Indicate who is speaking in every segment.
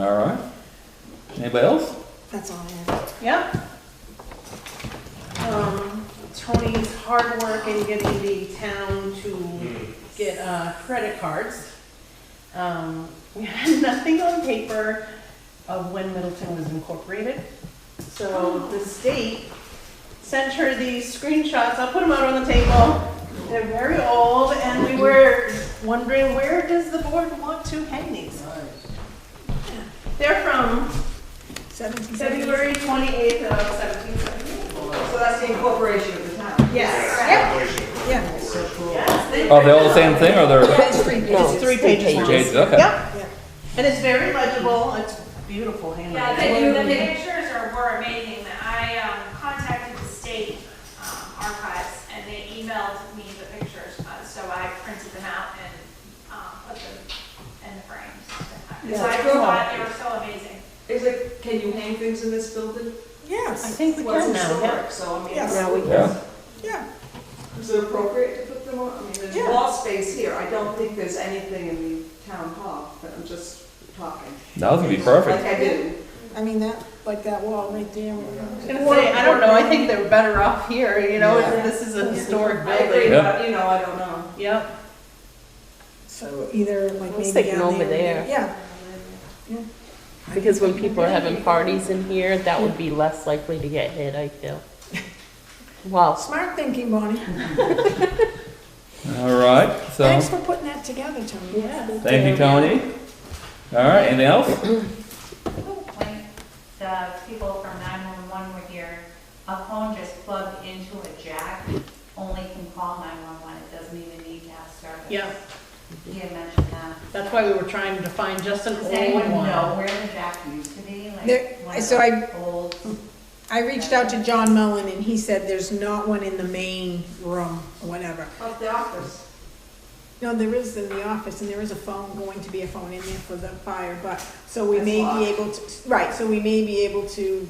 Speaker 1: All right. Anybody else?
Speaker 2: That's all I have.
Speaker 3: Yep. Um, Tony's hard work in getting the town to get, uh, credit cards. Um, we had nothing on paper of when Middleton was incorporated. So the state sent her these screenshots, I'll put them out on the table. They're very old, and we were wondering, where does the board want to hang these? They're from
Speaker 2: Seventeen.
Speaker 3: February twenty-eighth of seventeen seventy.
Speaker 4: So that's the incorporation of the town.
Speaker 3: Yes.
Speaker 2: Yeah.
Speaker 3: Yes. they-
Speaker 1: Are they Oh, all the same thing or they're
Speaker 2: It's three
Speaker 3: It's
Speaker 2: pages.
Speaker 3: three pages long.
Speaker 1: pages? Okay.
Speaker 3: Yep. And it's very legible, it's beautiful
Speaker 5: Yeah,
Speaker 3: handwriting.
Speaker 5: the, the pictures are, were amazing. I um, contacted the state um, archives and they emailed me the pictures, uh, so I printed them out and um, put them in the frames. So I grew up, they were so amazing.
Speaker 4: Is it, can you hang things in this building?
Speaker 3: I
Speaker 2: Yes,
Speaker 3: think we
Speaker 4: What's
Speaker 3: can now, yeah.
Speaker 4: historic, so I mean.
Speaker 2: Yes.
Speaker 4: Now
Speaker 1: Yeah.
Speaker 2: yeah.
Speaker 4: Is it appropriate to put them on? I mean, there's
Speaker 2: Yeah.
Speaker 4: wall space here. I don't think there's anything in the town hall, but I'm just talking.
Speaker 1: That was gonna be perfect.
Speaker 4: Like I did.
Speaker 2: I mean, that, like that wall right there.
Speaker 3: I was gonna say, I don't know, I think they're better off here, you know, if this is a historic
Speaker 4: I agree,
Speaker 3: building.
Speaker 1: Yeah.
Speaker 4: but you know, I don't know.
Speaker 3: Yep,
Speaker 2: So either like
Speaker 6: Let's
Speaker 2: maybe
Speaker 6: take it
Speaker 2: down
Speaker 6: over there.
Speaker 2: Yeah.
Speaker 6: Because when people are having parties in here, that would be less likely to get hit, I feel. Wow.
Speaker 2: Smart thinking, Bonnie.
Speaker 1: All right. So
Speaker 2: Thanks for putting that together, Tony.
Speaker 1: thank you, Tony. All right. Anything else?
Speaker 7: When the people from 911 were here, a phone just plugged into a jack only can call 911, it doesn't even need to have service.
Speaker 3: yeah,
Speaker 7: He had mentioned that.
Speaker 3: that's why we were trying to find just an
Speaker 7: Does
Speaker 3: old
Speaker 7: anyone
Speaker 3: one.
Speaker 7: know where the jack used to be? Like,
Speaker 2: There-
Speaker 7: one of
Speaker 2: so I-
Speaker 7: the Old,
Speaker 2: I reached out to John Mullen and he said there's not one in the main room, or whatever.
Speaker 4: Up the office.
Speaker 2: No, there is in the office, and there is a phone, going to be a phone in there for the fire, but, so we
Speaker 4: That's
Speaker 2: may
Speaker 4: locked.
Speaker 2: be able to, right, so we may be able to,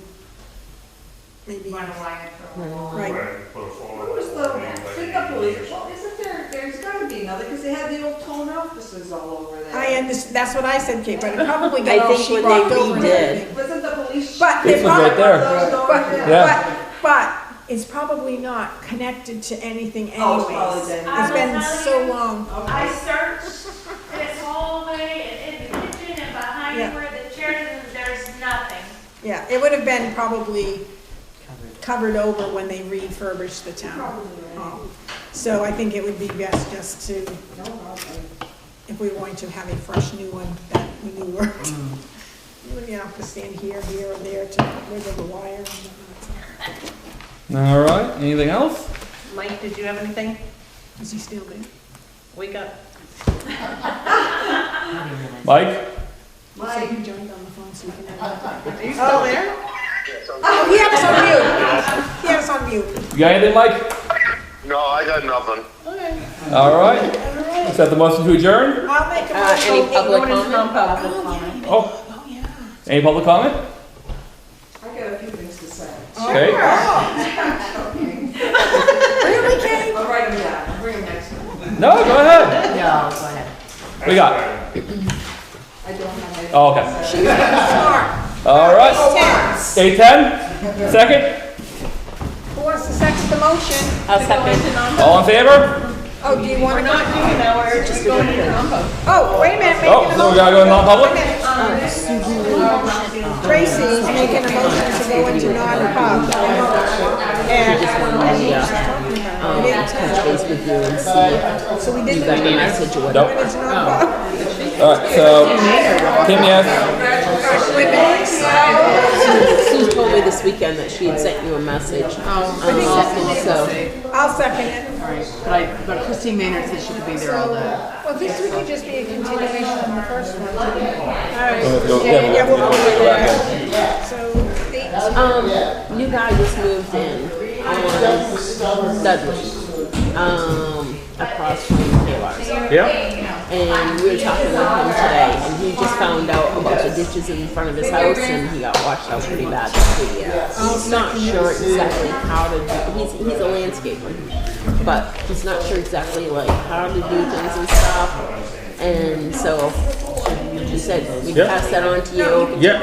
Speaker 2: maybe,
Speaker 7: run a wire through a wall.
Speaker 2: Right.
Speaker 4: What was the, think of police, well, isn't there, there's gotta be another, because they had the old tone offices all over there.
Speaker 2: I understand, that's what I said, Kate, but it probably got
Speaker 6: I
Speaker 2: all
Speaker 6: think
Speaker 2: she
Speaker 6: when
Speaker 2: rocked
Speaker 6: they
Speaker 2: over and
Speaker 6: redid-
Speaker 2: everything.
Speaker 4: Wasn't the police?
Speaker 2: But they
Speaker 1: This was right
Speaker 2: probably,
Speaker 1: there.
Speaker 2: but,
Speaker 1: Yeah.
Speaker 2: but, but, it's probably not connected to anything
Speaker 4: Oh, it's probably
Speaker 2: anyways.
Speaker 4: dead.
Speaker 2: It's been
Speaker 5: I will
Speaker 2: so
Speaker 5: tell you,
Speaker 2: long,
Speaker 5: I searched this hallway and in the kitchen and
Speaker 2: Yeah.
Speaker 5: behind where the chairs, and there's nothing.
Speaker 2: yeah, it would have been probably covered over when they refurbished the town
Speaker 4: Probably, right.
Speaker 2: hall. So I think it would be best just to
Speaker 4: No, probably.
Speaker 2: if we were going to have a fresh new one that we knew worked. You wouldn't have to stand here, here, or there to get rid of the wire and whatnot.
Speaker 1: All right. Anything else?
Speaker 3: Mike, did you have anything?
Speaker 2: Is he still there?
Speaker 3: Wake up.
Speaker 1: Mike.
Speaker 2: So
Speaker 4: Mike,
Speaker 2: he joined on the phone so we can have.
Speaker 3: Are you still there?
Speaker 2: Oh, he had us on mute. He had us on mute.
Speaker 1: You got anything, Mike?
Speaker 8: No, I got nothing.
Speaker 1: All right. Is that the motion to adjourn?
Speaker 2: I'll make a
Speaker 6: Uh, any
Speaker 2: motion.
Speaker 6: public
Speaker 3: Going into
Speaker 6: comment?
Speaker 3: non-public.
Speaker 1: Oh,
Speaker 2: Oh, yeah.
Speaker 1: any public comment?
Speaker 4: I got a few things to say.
Speaker 1: Okay.
Speaker 4: Okay.
Speaker 2: Really, Kate?
Speaker 4: I'll write them down, I'll bring them next time.
Speaker 1: No, go ahead.
Speaker 6: No, go ahead.
Speaker 1: We got.
Speaker 4: I don't have any.
Speaker 1: Oh, okay.
Speaker 4: She's
Speaker 2: Smart.
Speaker 1: All right.
Speaker 2: Ten.
Speaker 1: Eight ten. Second.
Speaker 2: Who wants to second the motion?
Speaker 6: I'll
Speaker 3: To go
Speaker 6: second.
Speaker 3: into non-
Speaker 1: All in favor?
Speaker 2: Oh, do you want
Speaker 3: We're
Speaker 2: to?
Speaker 3: not doing that, we're just going into non-public.
Speaker 2: Oh, wait a minute.
Speaker 1: Oh,
Speaker 2: making a
Speaker 1: so we gotta go
Speaker 2: motion.
Speaker 1: non-public?
Speaker 2: Wait a minute.
Speaker 3: Um,
Speaker 2: Tracy is making a motion to go into non-pub. And-
Speaker 6: Um, touch base with you and see
Speaker 2: So we did
Speaker 6: if I
Speaker 2: the
Speaker 6: mean, I said you Oh.
Speaker 1: Nope.
Speaker 6: would.
Speaker 2: it's non-pub.
Speaker 1: All right. So Kim, yes.
Speaker 6: Sue told me this weekend that she had sent you a message. Oh.
Speaker 2: I'll second it.
Speaker 9: But I, but Christine Maynard said she could be there all day.
Speaker 2: Well, this would just be a continuation of the first one.
Speaker 1: Yeah, we'll go back in.
Speaker 2: So, eight,
Speaker 6: So, um, you guys just moved in on Dudley, um, across from Taylor's.
Speaker 1: Yeah.
Speaker 6: And we were talking with him today, and he just found out a bunch of ditches in front of his house, and he got washed out pretty bad. He's not sure exactly how to do. He's he's a landscaper, but he's not sure exactly like how to do things and stuff. And so just said, we
Speaker 1: Yeah.
Speaker 6: pass that on to you.
Speaker 1: Yeah,